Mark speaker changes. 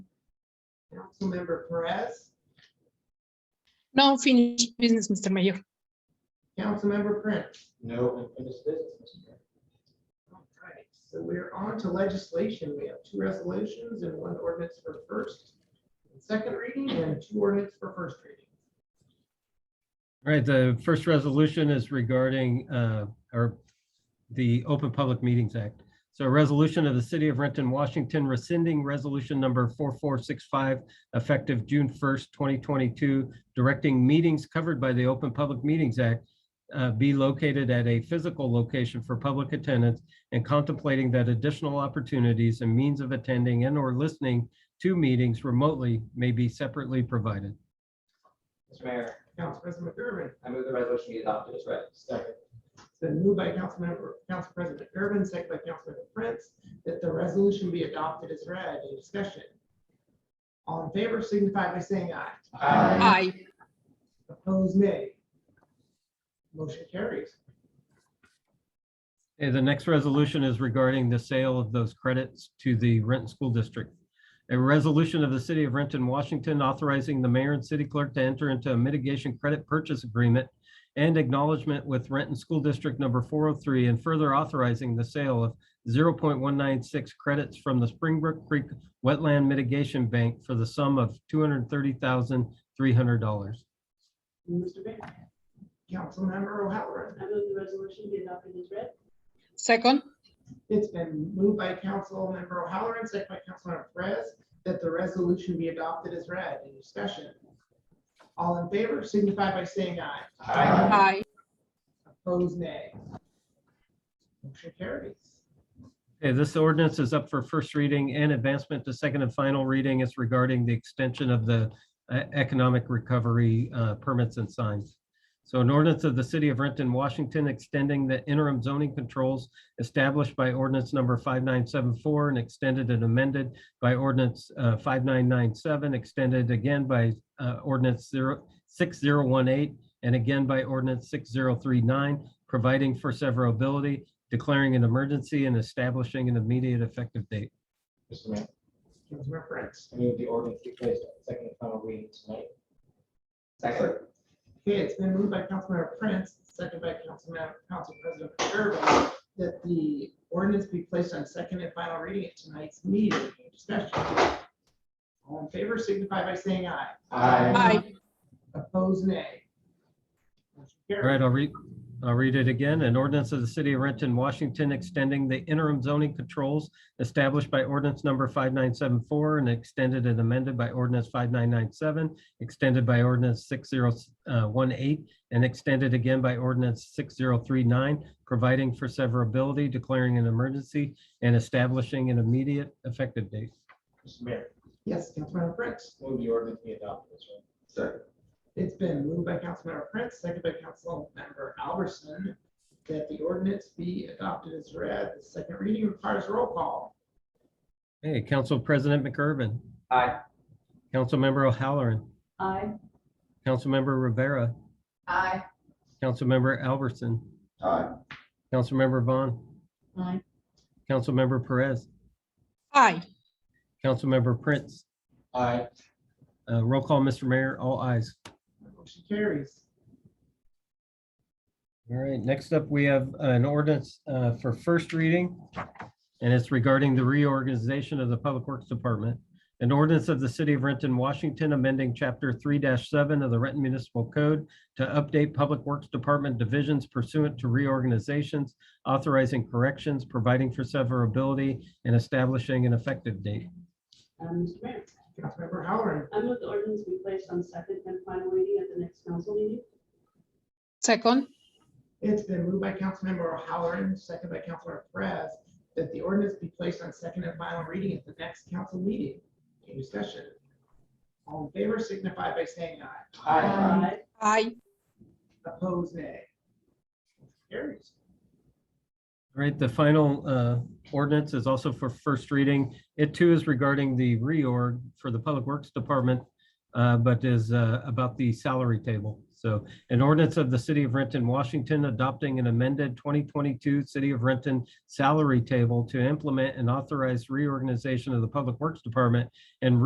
Speaker 1: Councilmember Perez,
Speaker 2: No unfinished business, Mr. Mayor.
Speaker 1: Councilmember Prince.
Speaker 3: No unfinished business, Mr. Mayor.
Speaker 1: All right, So we're on to legislation. We have two resolutions and one ordinance for first and second reading and two ordinance for first reading.
Speaker 4: All right, the first resolution is regarding, uh, or the Open Public Meetings Act. So a resolution of the City of Renton, Washington rescinding resolution number 4465 effective June 1st, 2022, directing meetings covered by the Open Public Meetings Act uh, be located at a physical location for public attendance and contemplating that additional opportunities and means of attending and or listening to meetings remotely may be separately provided.
Speaker 3: Mr. Mayor,
Speaker 1: Council President McGurven,
Speaker 3: I move the resolution be adopted as read.
Speaker 1: Second. It's been moved by Councilmember, Council President Urban, second by Councilmember Prince, that the resolution be adopted as read. Any discussion? All in favor signify by saying aye.
Speaker 3: Aye.
Speaker 2: Aye.
Speaker 1: Opposed, nay. Motion carries.
Speaker 4: Okay, the next resolution is regarding the sale of those credits to the Renton School District. A resolution of the City of Renton, Washington, authorizing the mayor and city clerk to enter into a mitigation credit purchase agreement and acknowledgement with Renton School District number 403, and further authorizing the sale of 0.196 credits from the Springbrook Creek Wetland Mitigation Bank for the sum of $230,300.
Speaker 5: Mr. Mayor,
Speaker 1: Councilmember O'Halloran.
Speaker 5: I move the resolution be adopted as read.
Speaker 2: Second,
Speaker 1: It's been moved by Councilmember O'Halloran, second by Councilmember Perez, that the resolution be adopted as read. Any discussion? All in favor signify by saying aye.
Speaker 3: Aye.
Speaker 2: aye.
Speaker 1: Opposed, nay. Motion carries.
Speaker 4: Okay, this ordinance is up for first reading and advancement to second and final reading. It's regarding the extension of the uh, economic recovery uh, permits and signs. So an ordinance of the city of Renton, Washington, extending the interim zoning controls established by ordinance number 5974 and extended and amended by ordinance uh, 5997, extended again by uh, ordinance 0 6018, and again by ordinance 6039, providing for severability declaring an emergency and establishing an immediate effective date.
Speaker 3: Mr. Mayor,
Speaker 1: Councilmember Prince.
Speaker 3: I move the ordinance be placed on second and final reading tonight. Second.
Speaker 1: Okay, it's been moved by Councilmember Prince, second by Councilmember, Council President Gerba, that the ordinance be placed on second and final reading at tonight's meeting. Any discussion? All in favor signify by saying aye.
Speaker 3: Aye.
Speaker 2: Aye.
Speaker 1: Opposed, nay. Motion
Speaker 4: All
Speaker 1: carries.
Speaker 4: right, I'll read, I'll read it again. An ordinance of the city of Renton, Washington, extending the interim zoning controls established by ordinance number 5974 and extended and amended by ordinance 5997, extended by ordinance 6018, and extended again by ordinance 6039, providing for severability, declaring an emergency, and establishing an immediate effective date.
Speaker 3: Mr. Mayor,
Speaker 1: Yes, Councilmember Prince.
Speaker 3: move the ordinance be adopted as read. Second.
Speaker 1: It's been moved by Councilmember Prince, second by Councilmember Albertson, that the ordinance be adopted as read. The second reading requires roll call.
Speaker 4: Hey, Council President McGurven,
Speaker 3: Aye.
Speaker 4: Councilmember O'Halloran,
Speaker 5: Aye.
Speaker 4: Councilmember Rivera,
Speaker 5: Aye.
Speaker 4: Councilmember Albertson,
Speaker 3: Aye.
Speaker 4: Councilmember Vaughn,
Speaker 5: Aye.
Speaker 4: Councilmember Perez,
Speaker 2: Aye.
Speaker 4: Councilmember Prince.
Speaker 3: Aye.
Speaker 4: Uh, Roll call, Mr. Mayor, all ayes.
Speaker 1: Motion carries.
Speaker 4: All right, next up, we have an ordinance uh, for first reading, and it's regarding the reorganization of the Public Works Department. An ordinance of the City of Renton, Washington, amending Chapter 3-7 of the Renton Municipal Code to update Public Works Department divisions pursuant to reorganizations, authorizing corrections, providing for severability, and establishing an effective date.
Speaker 5: Um, Mr. Mayor,
Speaker 1: Councilmember Halloran.
Speaker 5: I move the ordinance be placed on second and final reading at the next council meeting.
Speaker 2: Second,
Speaker 1: It's been moved by Councilmember O'Halloran, second by Councilmember Perez, that the ordinance be placed on second and final reading at the next council meeting. Any discussion? All in favor signify by saying aye.
Speaker 3: Aye.
Speaker 2: aye.
Speaker 1: Opposed, nay. Motion Carries.
Speaker 4: All right, the final uh, ordinance is also for first reading. It too is regarding the reorg for the Public Works Department, uh, but is uh, about the salary table. So an ordinance of the City of Renton, Washington, adopting an amended 2022 City of Renton salary table to implement an authorized reorganization of the Public Works Department and